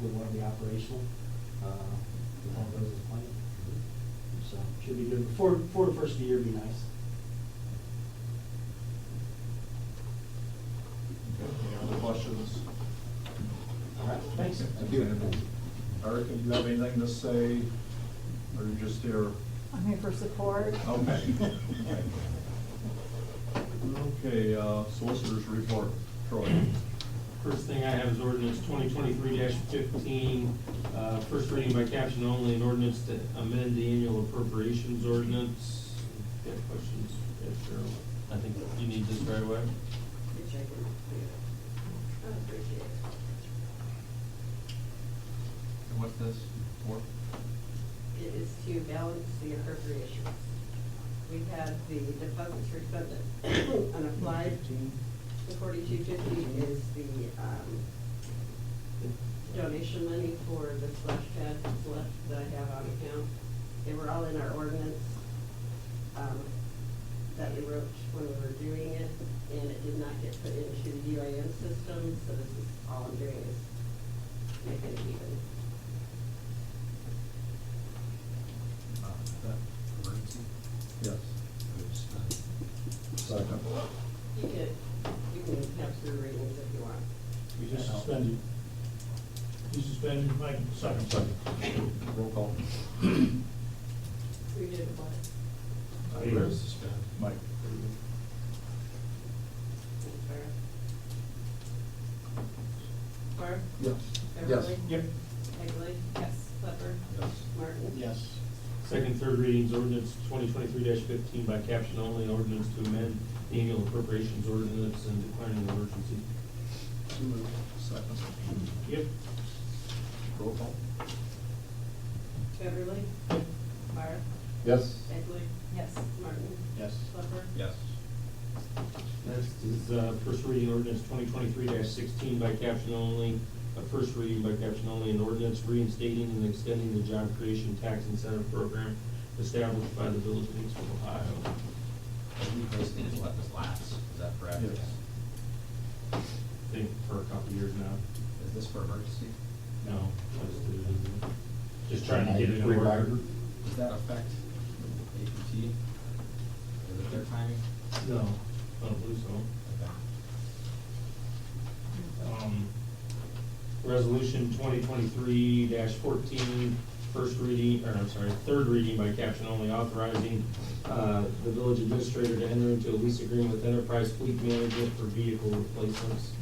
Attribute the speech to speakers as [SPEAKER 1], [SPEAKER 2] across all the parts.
[SPEAKER 1] would want to be operational. Uh, If all goes as planned. So should be good. Before, before the first of the year would be nice.
[SPEAKER 2] Any other questions?
[SPEAKER 1] All right, thanks.
[SPEAKER 2] Thank you. Erica, do you have anything to say, or you're just here?
[SPEAKER 3] I'm here for support.
[SPEAKER 2] Okay. Okay, uh, solicitors report, Troy.
[SPEAKER 4] First thing I have is ordinance twenty twenty-three fifteen, uh, first reading by caption only, an ordinance to amend the annual appropriations ordinance. Got questions? Yeah, sure. I think you need this right away.
[SPEAKER 2] And what's this for?
[SPEAKER 5] It is to balance the appropriations. We had the deposits for equipment unapplied. The forty-two fifty is the, um, donation money for the splash pad that's left that I have on account. They were all in our ordinance, um, that we wrote when we were doing it, and it did not get put into the UIN system, so this is, all I'm doing is making it even.
[SPEAKER 2] Yes. Second.
[SPEAKER 5] You can, you can have three readings if you want.
[SPEAKER 6] We just suspended. You suspended, Mike, second.
[SPEAKER 2] Roll call.
[SPEAKER 5] We did what?
[SPEAKER 2] Mike.
[SPEAKER 5] Barb? Barb?
[SPEAKER 2] Yes.
[SPEAKER 5] Beverly?
[SPEAKER 6] Yep.
[SPEAKER 5] Egley? Yes. Clifford?
[SPEAKER 2] Yes.
[SPEAKER 5] Martin?
[SPEAKER 1] Yes.
[SPEAKER 4] Second, third readings, ordinance twenty twenty-three fifteen by caption only, an ordinance to amend the annual appropriations ordinance and declaring an emergency.
[SPEAKER 2] Second.
[SPEAKER 4] Yep.
[SPEAKER 2] Roll call.
[SPEAKER 5] Beverly? Barb?
[SPEAKER 2] Yes.
[SPEAKER 5] Egley?
[SPEAKER 3] Yes.
[SPEAKER 5] Martin?
[SPEAKER 1] Yes.
[SPEAKER 5] Clifford?
[SPEAKER 2] Yes.
[SPEAKER 4] Next is, uh, first reading ordinance twenty twenty-three sixteen by caption only, a first reading by caption only, an ordinance reinstating and extending the job creation tax incentive program established by the Village of Hicksville, Ohio.
[SPEAKER 7] We basically just let this lapse, is that correct?
[SPEAKER 2] Yes.
[SPEAKER 4] I think for a couple of years now.
[SPEAKER 7] Is this for emergency?
[SPEAKER 4] No, I just did it as a- Just trying to get it in order.
[SPEAKER 7] Does that affect APT? Is it their timing?
[SPEAKER 4] No, I don't believe so.
[SPEAKER 7] Okay.
[SPEAKER 4] Um, Resolution twenty twenty-three 14 first reading, or I'm sorry, third reading by caption only, authorizing uh, the village administrator to enter into a lease agreement with Enterprise Fleet Management for vehicle replacements.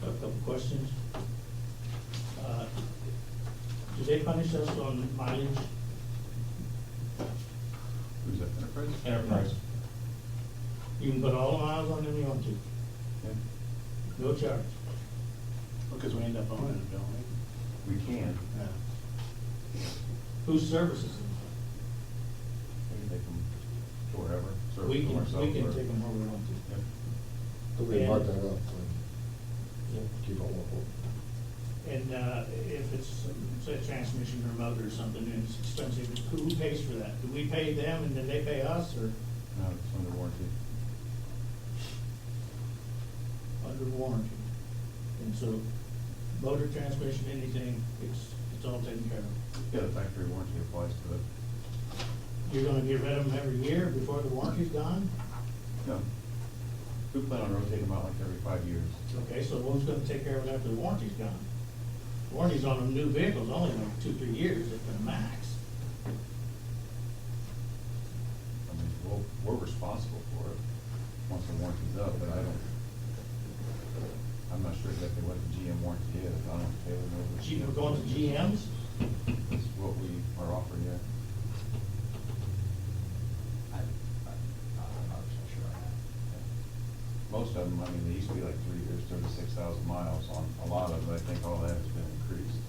[SPEAKER 6] Got a couple questions. Uh, Do they punish us on mileage?
[SPEAKER 2] Who's that, Enterprise?
[SPEAKER 4] Enterprise.
[SPEAKER 6] You can put all the miles on them you want to, no charge.
[SPEAKER 1] Because we end up owning it, don't we?
[SPEAKER 2] We can.
[SPEAKER 1] Yeah.
[SPEAKER 6] Who services them?
[SPEAKER 2] We can take them to wherever. serve
[SPEAKER 6] We
[SPEAKER 2] them
[SPEAKER 6] can,
[SPEAKER 2] ourselves
[SPEAKER 6] we can
[SPEAKER 2] or-
[SPEAKER 6] take them where we want to.
[SPEAKER 2] Yeah.
[SPEAKER 8] We
[SPEAKER 6] And-
[SPEAKER 8] mark that up,
[SPEAKER 4] Yeah.
[SPEAKER 8] and keep on local.
[SPEAKER 6] And uh, if it's, say, a transmission or motor or something, and it's expensive, who pays for that? Do we pay them and then they pay us, or
[SPEAKER 2] No, it's under warranty.
[SPEAKER 6] under warranty? And so, motor, transmission, anything, it's, it's all taken care of.
[SPEAKER 2] Yeah, the factory warranty applies to it.
[SPEAKER 6] You're gonna get rid of them every year before the warranty's gone?
[SPEAKER 2] No. We plan on rotating them out like every five years.
[SPEAKER 6] Okay, so who's gonna take care of it after the warranty's gone? Warranty's on them new vehicles, only like two, three years at the max.
[SPEAKER 2] I mean, we'll, we're responsible for it once the warranty's up, but I don't, I'm not sure exactly what the GM warranty is. I don't know if Taylor knows. what
[SPEAKER 6] Gee, We're going to GMs?
[SPEAKER 2] That's what we are offering, yeah.
[SPEAKER 7] I, I, I'm not so sure on
[SPEAKER 2] Most of them, I mean, they used to be like three years, thirty-six thousand miles on a lot of them. I think all that has been increased.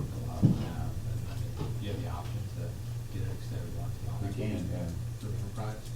[SPEAKER 7] that. A lot of uh, them have, but I mean, do you have the option to get an extended warranty on
[SPEAKER 2] We
[SPEAKER 7] it?
[SPEAKER 2] can, yeah.
[SPEAKER 7] Through enterprise?